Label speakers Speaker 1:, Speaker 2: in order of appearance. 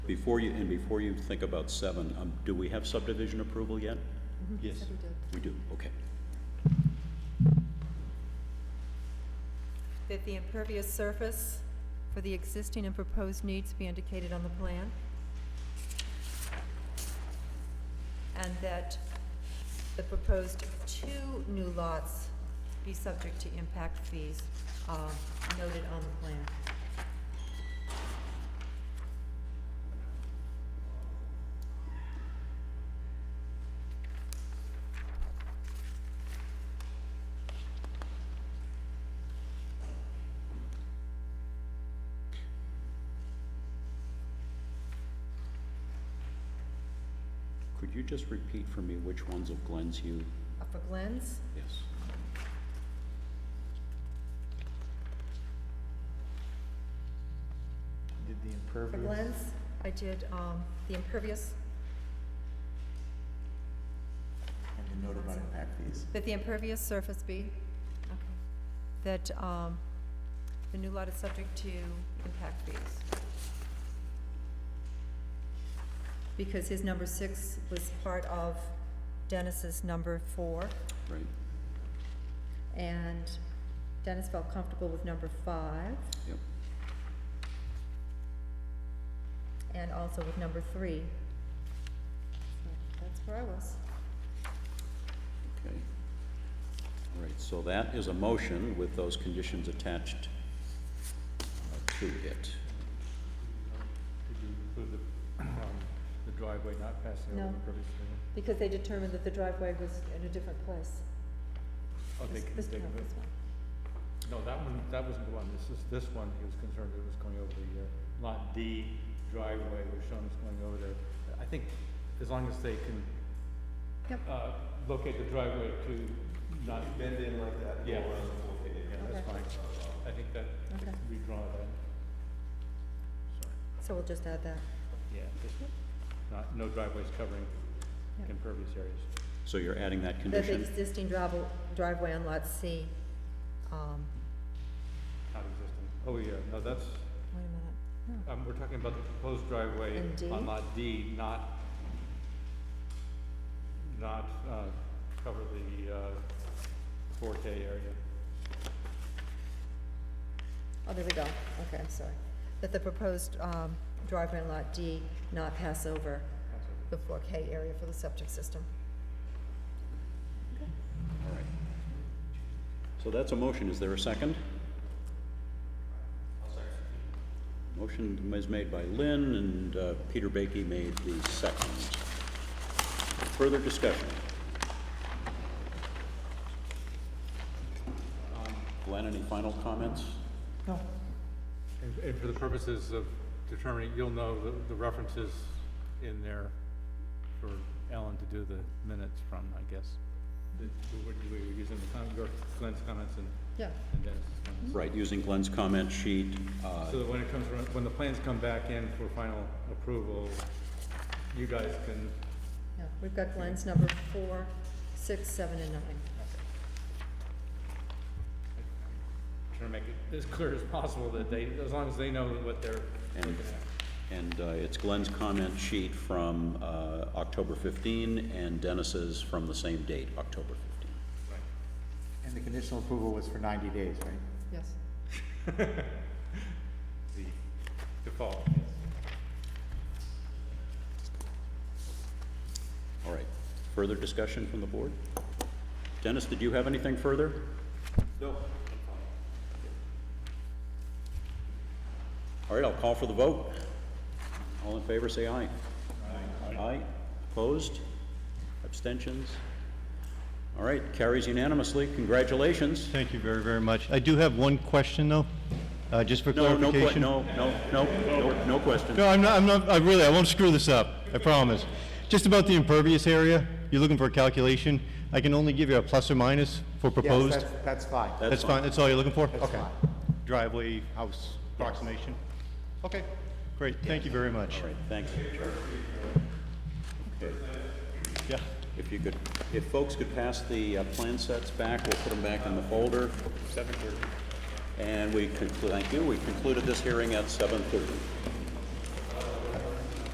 Speaker 1: Before you, and before you think about seven, um, do we have subdivision approval yet?
Speaker 2: Yes.
Speaker 1: Mm-hmm. We do, okay.
Speaker 3: That the impervious surface for the existing and proposed needs be indicated on the plan. And that the proposed two new lots be subject to impact fees uh, noted on the plan.
Speaker 1: Could you just repeat for me which ones of Glenn's you,
Speaker 3: Uh, For Glenn's,
Speaker 1: yes?
Speaker 2: Did the
Speaker 3: for
Speaker 2: impervious?
Speaker 3: Glenn's, I did um, the impervious,
Speaker 2: And the note about impact fees.
Speaker 3: that the impervious surface be, okay, that um, the new lot is subject to impact fees. Because his number six was part of Dennis's number four,
Speaker 1: Right,
Speaker 3: and Dennis felt comfortable with number five,
Speaker 1: yep,
Speaker 3: and also with number three. So That's where I was.
Speaker 1: okay. All right, so that is a motion with those conditions attached uh, to it.
Speaker 4: Did you include the, um, the driveway not passing over
Speaker 3: No.
Speaker 4: the impervious area?
Speaker 3: Because they determined that the driveway was in a different place.
Speaker 4: Oh, they,
Speaker 3: This-
Speaker 4: can-
Speaker 3: this-
Speaker 4: they,
Speaker 3: no,
Speaker 4: can-
Speaker 3: this one.
Speaker 4: no, that one, that wasn't the one, this is, this one, he was concerned it was going over the, uh, lot D driveway was shown as going over there. I think as long as they can,
Speaker 3: Yep.
Speaker 4: uh, locate the driveway to not,
Speaker 2: Bend in like that.
Speaker 4: yeah, yeah, that's
Speaker 3: Okay.
Speaker 4: fine. I think that,
Speaker 3: Oh, Okay.
Speaker 4: redraw that. Sorry.
Speaker 3: So we'll just add that.
Speaker 4: Yeah, just not, no driveways covering
Speaker 3: Yep.
Speaker 4: impervious areas.
Speaker 1: So you're adding that
Speaker 3: That the
Speaker 1: condition?
Speaker 3: existing drive- driveway on lot C, um,
Speaker 4: Not existing. Oh, yeah, no, that's,
Speaker 3: wait a minute,
Speaker 4: um, we're talking about the proposed driveway
Speaker 3: In D?
Speaker 4: on lot D, not, not, uh, cover the, uh, four K area.
Speaker 3: oh, there we go, okay, I'm sorry. That the proposed, um, driveway on lot D not pass over
Speaker 4: That's it.
Speaker 3: the four K area for the septic system.
Speaker 1: All right. So that's a motion, is there a 2nd second. Motion is made by Lynn, and uh, Peter Baiki made the second. Further discussion? Glenn, any final comments?
Speaker 4: And, and for the purposes of determining, you'll know the, the references in there for Ellen to do the minutes from, I guess. The, we were using the com, your, Glenn's comments and,
Speaker 3: Yeah.
Speaker 4: and Dennis's comments.
Speaker 1: Right, using Glenn's comment sheet, uh,
Speaker 4: So that when it comes around, when the plans come back in for final approval, you guys can,
Speaker 3: Yeah, we've got Glenn's number four, six, seven, and nine.
Speaker 4: try to make it as clear as possible that they, as long as they know what they're
Speaker 1: And-
Speaker 4: looking at.
Speaker 1: and uh, it's Glenn's comment sheet from uh, October 15, and Dennis's from the same date, October 15.
Speaker 2: And the conditional approval was for ninety days, right?
Speaker 3: Yes.
Speaker 4: The default,
Speaker 1: All right. Further discussion from the board? Dennis, did you have anything further?
Speaker 4: No.
Speaker 1: All right, I'll call for the vote. All in favor, say aye. Aye. Aye. Opposed? Abstentions? All right, carries unanimously. Congratulations.
Speaker 5: Thank you very, very much. I do have one question, though, uh, just for
Speaker 1: No, no, que-
Speaker 5: clarification.
Speaker 1: no, no, no, no, no question.
Speaker 5: No, I'm not, I'm not, I really, I won't screw this up, I promise. Just about the impervious area, you're looking for a calculation. I can only give you a plus or minus for
Speaker 2: Yes,
Speaker 5: proposed.
Speaker 2: that's- That's fine.
Speaker 1: That-
Speaker 5: That's fine, that's all you're looking for?
Speaker 2: That's
Speaker 5: Okay.
Speaker 2: fine.
Speaker 5: Driveway, house, approximation. Okay, great, thank you very much.
Speaker 1: All right, thanks, Charlie. Okay,
Speaker 5: Yeah,
Speaker 1: if you could, if folks could pass the uh, plan sets back, we'll put them back in the folder. Seven thirty. And we conclude, thank you, we concluded this hearing at seven thirty.